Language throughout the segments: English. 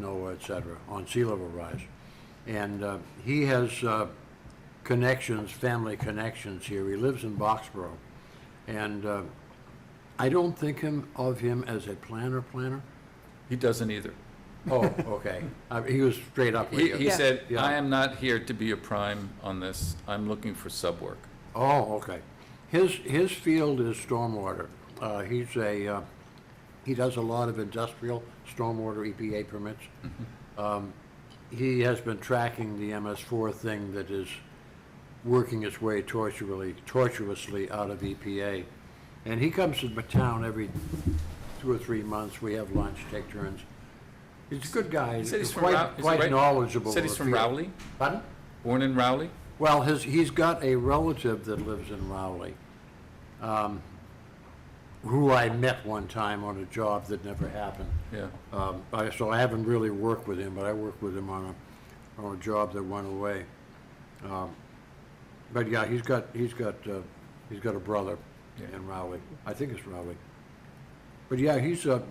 NOAA, et cetera, on sea level rise. And uh, he has uh, connections, family connections here. He lives in Boxborough. And uh, I don't think him, of him as a planner planner. He doesn't either. Oh, okay. Uh, He was straight up with He, he you. Yeah. said, Yeah. I am not here to be a prime on this. I'm looking for sub work. Oh, okay. His, his field is stormwater. Uh, He's a, uh, he does a lot of industrial stormwater EPA permits. Mm-hmm. Um, He has been tracking the MS4 thing that is working its way tortuously, tortuously out of EPA. And he comes to the town every two or three months. We have lunch, take turns. He's a good guy. He said he's from quite- Rou- is he Quite right? knowledgeable. Said of he's the from field. Rowley, Pardon? born in Rowley. Well, his, he's got a relative that lives in Rowley, um, who I met one time on a job that never happened. Yeah. Um, I, so I haven't really worked with him, but I worked with him on a, on a job that went away. Um, but yeah, he's got, he's got, uh, he's got a brother Yeah. in Rowley. I think it's Rowley. But yeah, he's a,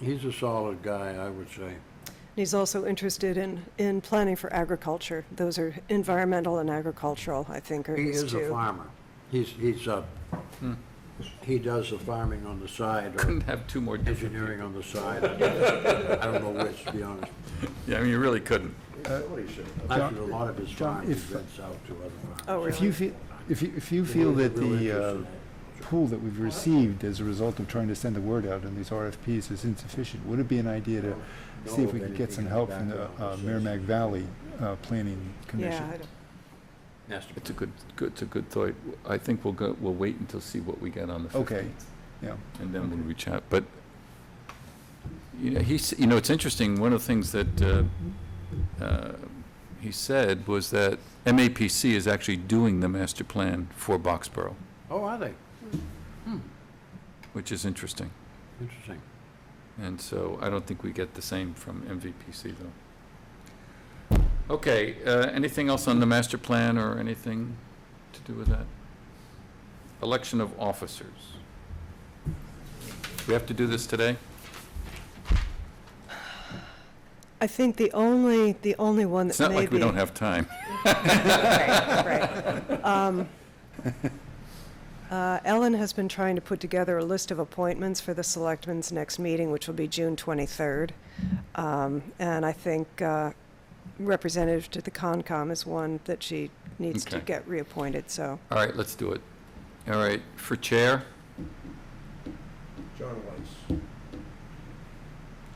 he's a solid guy, I would say. And He's also interested in, in planning for agriculture. Those are environmental and agricultural, I think, are He his is two. a farmer. He's, he's, uh, he does the farming on the side or Couldn't have two more different. engineering on the side. I don't know which, to be honest. Yeah, I mean, you really couldn't. Actually, a lot of his John, farm he if- rents out to other Oh, farmers. If you really? feel, if you, if you feel that the uh, pool that we've received as a result of trying to send the word out in these RFPs is insufficient, would it be an idea to see if we could get some help from the uh, Merrimack Valley uh, Planning Commission? Yeah, I don't- Master It's a good, good, it's a good thought. I think we'll go, we'll wait until see what we get on the Okay. fifteenth. Yeah, and then we'll reach out. But, you know, he's, you know, it's interesting, one of the things that uh, uh, he said was that MAPC is actually doing the master plan for Boxborough, Oh, are they? which is interesting. Interesting. And so I don't think we get the same from MVPC, though. Okay, uh, anything else on the master plan or anything to do with that? Election of officers. We have to do this today? I think the only, the only one that It's may not be. like we don't have time. Right, right. Um, uh, Ellen has been trying to put together a list of appointments for the selectmen's next meeting, which will be June 23rd. Um, And I think uh, representative to the Concom is one that she needs to Okay. get reappointed, so. All right, let's do it. All right, for chair, John Weiss.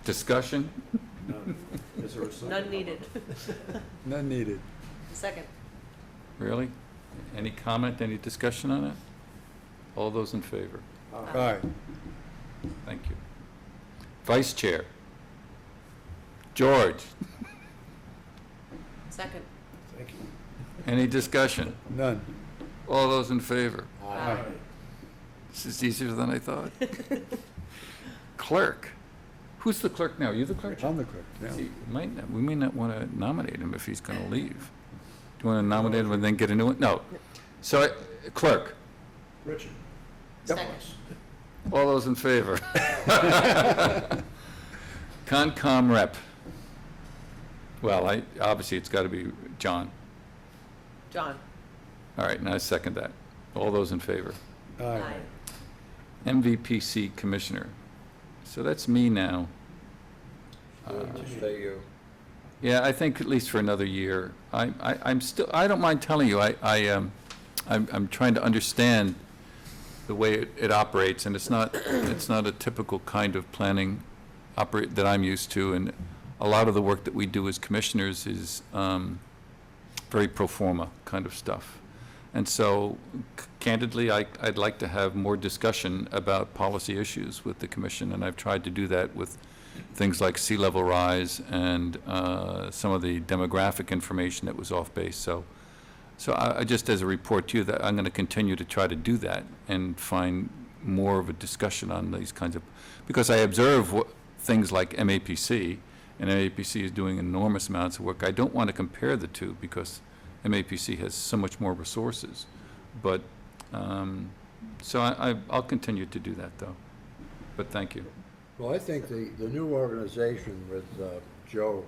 discussion? Is there a second? None needed. none needed. Second. Really? Any comment, any discussion on it? All those in favor? All right. Thank you. Vice chair? George, Second. Thank you. any discussion? None. All those in favor? Aye. This is easier than I thought. Clerk? Who's the clerk now? You the clerk? I'm the clerk, yeah. See, might not- We may not want to nominate him if he's going to leave. Do you want to nominate him and then get a new one? No. So I- clerk? Richard. Second. Weiss. All those in favor? Concom rep. Well, I, obviously, it's got to be John. John. All right, and I second that. All those in favor? Aye. MVPC commissioner. So that's me now. Uh, Yeah, I think at least for another year. I, I, I'm still, I don't mind telling you, I, I, um, I'm, I'm trying to understand the way it, it operates, and it's not, it's not a typical kind of planning operate, that I'm used to, and a lot of the work that we do as commissioners is, um, very pro forma kind of stuff. And so c- candidly, I, I'd like to have more discussion about policy issues with the commission, and I've tried to do that with things like sea level rise and uh, some of the demographic information that was off base. So, so I, I just as a report to you that I'm going to continue to try to do that and find more of a discussion on these kinds of, because I observe what, things like MAPC, and MAPC is doing enormous amounts of work. I don't want to compare the two because MAPC has so much more resources. But, um, so I, I- I'll continue to do that though. But thank you. Well, I think the, the new organization with uh, Joe